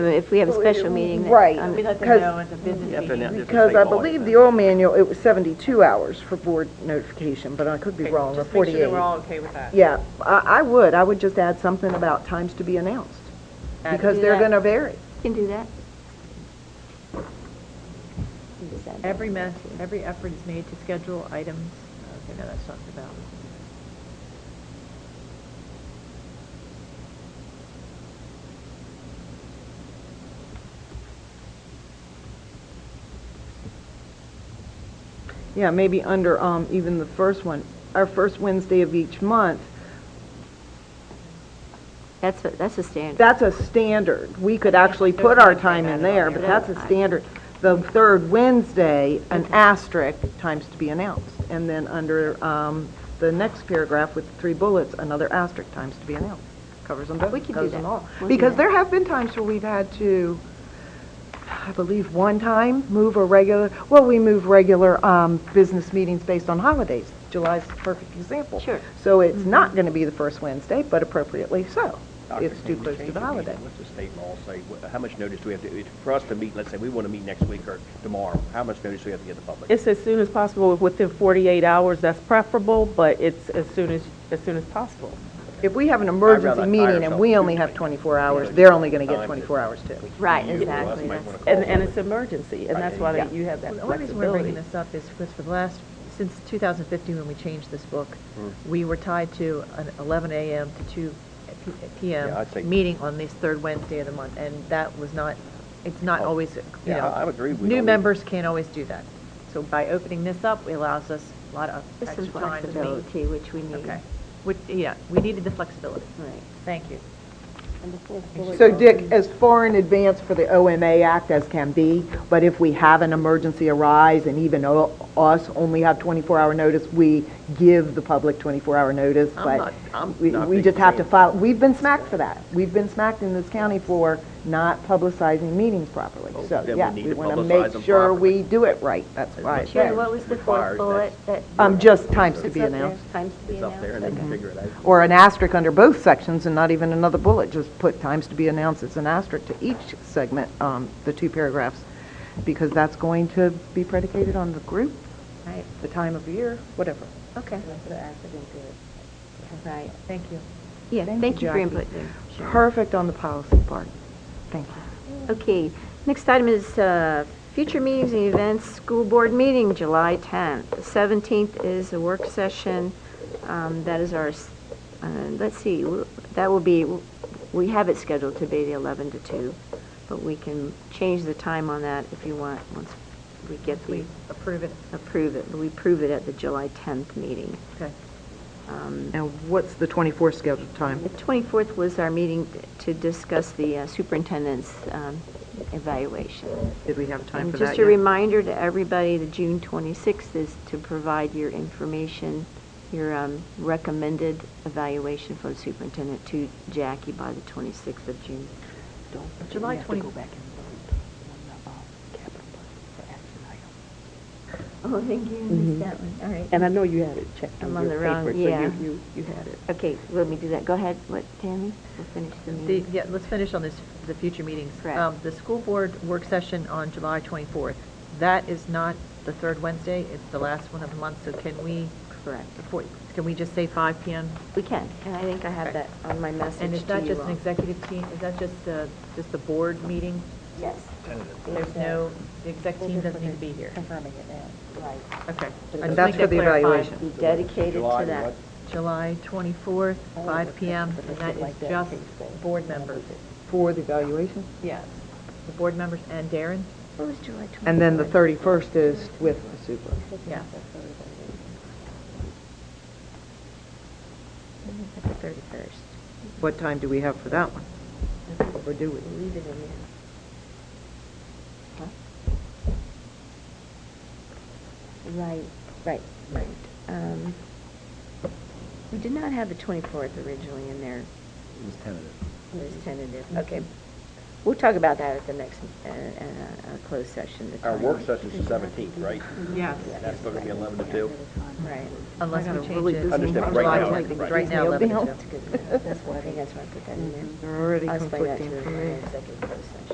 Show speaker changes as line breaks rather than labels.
If we have a special meeting. that-
Right.
um,
We let them
Because-
know it's a business
Yeah, but now-
meeting.
if it's
Because
like
I
law,
believe
then-
the old manual, it was 72 hours for board notification, but I could be
Okay,
wrong, or
Just make sure that
48.
we're all okay with that.
Yeah, I, I would, I would just add something about times to be announced,
Add-
because
Do
they're
that.
gonna vary.
Can do that. Can just add that.
Every mess, every effort is made to schedule items, okay, no, that's talked about.
Yeah, maybe under, um, even the first one, our first Wednesday of each month,
That's, what- that's a standard.
that's a standard. We could actually put our time in there, but that's a standard. The third Wednesday, an asterisk, times to be announced. And then under, um, the next paragraph with three bullets, another asterisk, times to be announced. Covers them both,
We could do
covers them
that.
all.
We'll do
Because
that.
there have been times where we've had to, I believe, one time, move a regular, well, we move regular, um, business meetings based on holidays. July's a perfect example.
Sure. Mm-hmm.
So it's not gonna be the first Wednesday, but appropriately so.
Doctor,
It's
can
too
we
close to
change
the
meeting?
holiday.
What's the state law say? Wh- How much notice do we have to, for us to meet, let's say we want to meet next week or tomorrow, how much notice do we have to give the public?
It's as soon as possible, within 48 hours, that's preferable, but it's as soon as, as soon as possible.
If we have an
I'd
emergency
rather
meeting and
hire
we only
someone.
have 24 hours,
Yeah.
they're only going to get
Time
24 hours too.
Right,
You or us
exactly,
might
that's-
wanna call
And, and it's
somebody.
emergency, and that's
Right,
why
yeah.
you have that
The only reason we're bringing
flexibility.
this up is because for the last, since 2015, when we changed this book,
Hmm.
we were tied to an 11 a.m. to 2 p-
Yeah,
p.m.
I'd say-
meeting on this third Wednesday of the month, and that was not, it's not
Oh,
always, you
yeah,
know,
I- I agree, we don't
New
need-
members can't always do that. So by opening this up, it allows us a lot of
This
extra
is
time to meet.
flexibility, which we need.
Okay. Which, yeah, we needed the flexibility.
Right.
Thank you.
So Dick, as far in advance for the OMA Act as can be, but if we have an emergency arise and even o- us only have 24-hour notice, we give the public 24-hour notice,
I'm
but
not- I'm
we-
not
we
big
just have to
fan.
file, we've been smacked for that. We've been smacked in this county for not publicizing meetings properly.
Oh,
So,
then we
yeah,
need
we
to
want to
publicize
make
them
sure
properly.
we do it right, that's
As
why.
much
Sherry,
Right.
what was the fourth
Requires
bullet that?
Um, just times to
It's
be
up there,
announced.
Times to be
It's up there and they
announced.
can figure it out.
or an asterisk under both sections and not even another bullet, just put times to be announced as an asterisk to each segment, um, the two paragraphs, because that's going to be predicated on the group,
Right,
the time of year, whatever.
okay. Right,
Thank you.
yeah,
Thank
thank
you,
you for your
Jackie.
input there. Sherry.
Perfect on the policy part. Thank you.
Okay, next item is uh, future meetings and events, school board meeting, July 10th. The 17th is a work session, um, that is our, s- uh, let's see, w- that will be, we have it scheduled to be the 11 to 2, but we can change the time on that if you want, once we get the,
We approve it.
approve it, we approve it at the July 10th meeting.
Okay.
Um,
And what's the 24 scheduled
The
time?
24th was our meeting to discuss the uh, superintendent's um, evaluation.
Did we have time
And
for that
Just a
yet?
reminder to everybody, the June 26th is to provide your information, your um, recommended evaluation for the superintendent to Jackie by the 26th of June.
July 20.
Oh, thank you, I missed that one, all right.
And I know you had it checked
I'm
on
on
your
the wrong-
paper, so
yeah.
you, you, you had it.
Okay, let me do that, go ahead, what, Tammy, we'll finish the
The,
meeting.
yeah, let's finish on this, the future meetings.
Mm-hmm. Correct.
Um, The school board work session on July 24th, that is not the third Wednesday, it's the last one of the month, so can we,
Correct,
before- can we just say 5 PM?
we can, and I think I have that on my message
And is
to
that
you
just an
all.
executive team, is that just, uh, just the board meeting?
Yes.
There's no, the exec team doesn't need to be here.
Confirming it now.
Right.
Okay. I
And
just
that's
think
for
that
the
clarified.
evaluation.
Be dedicated
July
to that.
what?
July 24th, 5 PM, and that is
Like that,
just
please say.
board members.
For the evaluation?
Yes. The board members and Darren?
What was July 24th?
And then the 31st is with the super.
Yeah.
At the 31st.
What time do we have for that one? Or do we?
Leave it in there. Huh? Right, right, right. Um, We did not have the 24th originally in there.
It was tentative.
It was tentative. Okay. We'll talk about that at the next, uh, uh, uh, closed session. the
Our work
timing.
session's the seventeenth, right?
Yes.
That's going to be eleven to two.
Right.
Unless
I got
we
a
change
really
it.
busy
Understand,
July
right now,
10th,
right.
Right now, 11 to
Nailed
two.
That's good. That's why, I think that's why I put that in there.
They're already
I'll explain that
conflicting
to you
for
in
me.
the executive closed session.